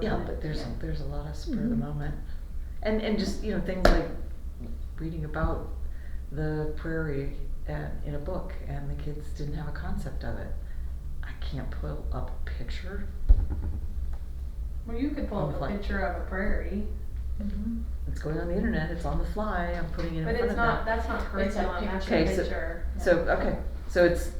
Yeah, but there's, there's a lot of spur Mm-hmm. of the moment. And, and just, you know, things like reading about the prairie and, in a book and the kids didn't have a concept of it. I can't pull up a picture. Well, you could pull up a Conflict. picture of a prairie, It's going on the internet, it's on the fly, I'm putting it Mm-hmm. in but front it's of not, them. that's not curriculum, that's a picture. Okay, so- picture. So, okay, so it's,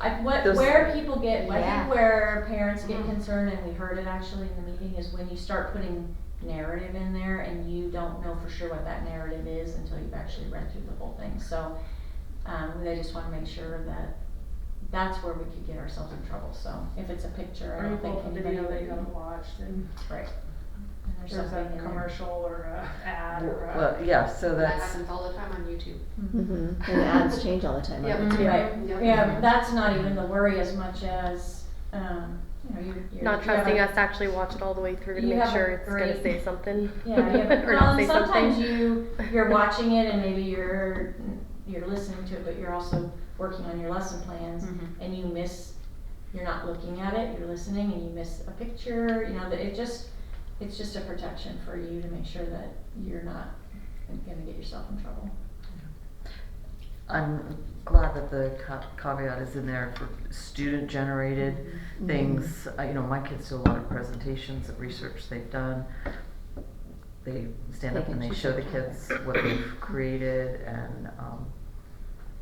I, what, Those- where people get, I Yeah. Mm-hmm. think where parents get Mhm. concerned, and we heard it actually in the meeting, is when you start putting narrative in there and you don't know for sure what that narrative is until you've actually read through the whole thing, so, um, they just wanna make sure that that's where we could get ourselves in trouble, so if it's a picture, I Or you don't pull think up a anybody video would. that you haven't watched and Right. And there's there's something a in there. commercial or a ad or a. well, yeah, so That that's, happens all the time on YouTube. Mm-hmm. And the ads change all the time. Yep. aren't they? Right, Yep. yeah, but that's not even the worry as much as, um, you know, you're. you're- Not you have trusting a- us to actually watch it all the way through to You make have a sure it's great- gonna say something. Yeah, yeah, but or well, not and say sometimes something. you, you're watching it and maybe you're, you're listening to it, but you're also working on your lesson plans and you miss, you're not looking at it, you're listening and you miss a picture, you know, that it just, it's just a protection for you to make sure that you're not gonna get yourself in trouble. I'm glad that the ca- caveat is in there for student generated Mm-hmm. things. Uh, you know, my kids do a lot of presentations of research they've done. They stand They up can and they choose show their the kids what they've created and, um,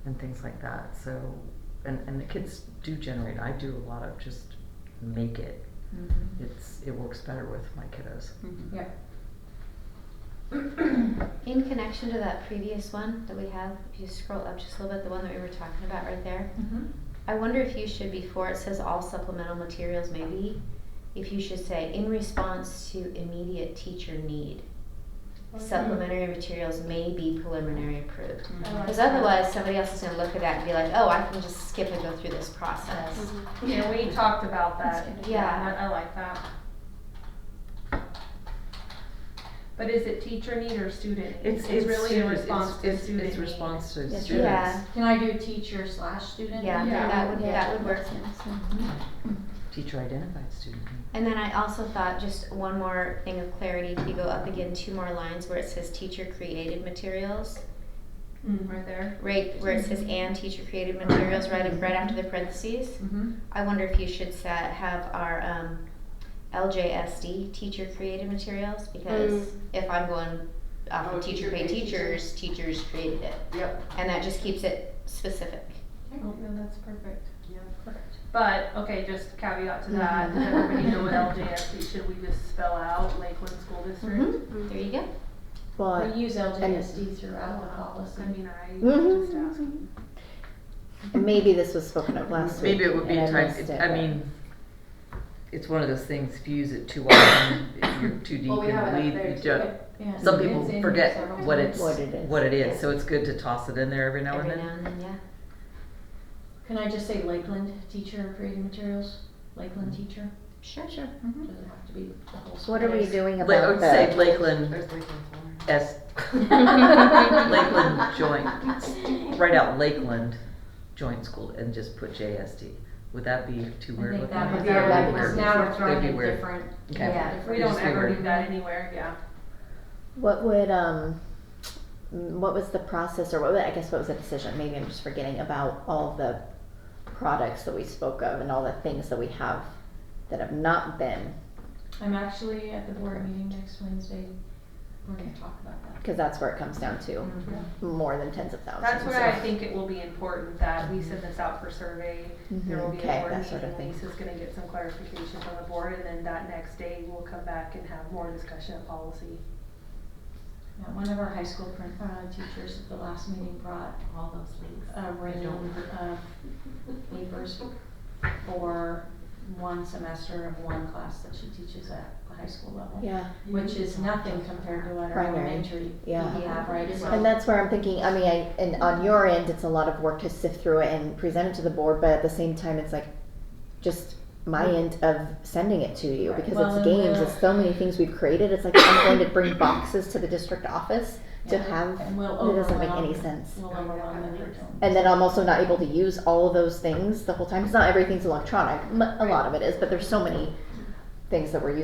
and things like that. So, and, and the kids do generate, I do a lot of just make it. Mm-hmm. It's, it works better with my kiddos. Yep. In connection to that previous one that we have, if you scroll up just a little bit, the one that we were talking about right there, I wonder if you should, before it says all supplemental materials, maybe, if you should say in response to immediate teacher need, supplementary materials may be preliminary approved. I like Because that. otherwise, somebody else is going to look at that and be like, oh, I can just skip and go through this process. Yeah, we talked about that. Yeah. I I like that. But is it teacher need or student? need? really in student- response to it's- student It's need. response to Yes, students. Yeah, Can I do teacher slash student? yeah, Yeah. that would, that would work. Teacher identified student. need. And then I also thought just one more thing of clarity, if you go up again two more lines where it says teacher created materials, Mm, right there. right where it says and teacher created materials right right after the parentheses. Mm-hmm. I wonder if you should set, have our um, LJSD teacher created materials because Mm. if I'm going off Oh, of teacher teacher paid paid teachers, teachers created it. Yep. And that just keeps it specific. Oh, no, that's perfect. Yeah. But, okay, just caveat to that, Mm-hmm. does everybody know what LJSD, should we just spell out Lakeland School Mm-hmm. District? There you go. Well, We use LJSD I throughout the policy. Um, I mean, I Mhm. just asked. maybe this was spoken of last week. Maybe it would be and a I time, missed it- it, I but- mean, it's one of those things, if you use it too often, if you're too deep Well, we in have it the up lead, there you too. don't. Yeah. Some It's people in here forget several what times. it's, What it is, what it yeah. is, so it's good to toss it in there every now and Every then. now and then, yeah. Can I just say Lakeland teacher creating materials? Lakeland teacher? Sure, sure. Doesn't have to be the whole Mm-hmm. What are we school. doing Like, I about would say the, Lakeland There's Lakeland Florida. S, Lakeland Joint, write out Lakeland Joint School and just put JSD. Would that be too I weird think with that them? would would be be our weird. language. Now we're That'd throwing be in weird. different. Okay. Yeah. We Just don't be ever weird. do that anywhere, yeah. what would, um, mm, what was the process or what, wa- I guess what was the decision? Maybe I'm just forgetting about all the products that we spoke of and all the things that we have that have not been, I'm actually at the board meeting next Wednesday. We're gonna talk about that. because that's where it comes down to, Mm-hmm. more than tens of thousands. That's where I of- think it will be important that we send this out for survey. There will be Mhm. Okay, a board that sort of meeting, thing. Lisa's gonna get some clarification from the board, and then that next day, we'll come back and have more discussion of policy. Yeah, one of our high school print, uh, teachers at the last meeting brought All those links. a Um, random of papers for one semester of one class that she teaches at the high school level. Yeah. Which is nothing compared to what our Primary, elementary we yeah. have, right? It's And that's where I'm thinking, I mean, I, and on your end, it's a lot of work to sift through it and present it to the board, but at the same time, it's like, just my end of sending it to you, because Well, it's and games, we'll- it's so many things we've created, it's like, I'm going to bring boxes to the district office to Yeah. have, And we'll it doesn't make any overwhelm. sense. Will overwhelm the curriculum. And then I'm also not able to use all of those things the whole time, because not everything's electronic, M- a lot of it is, but there's so many things that we're using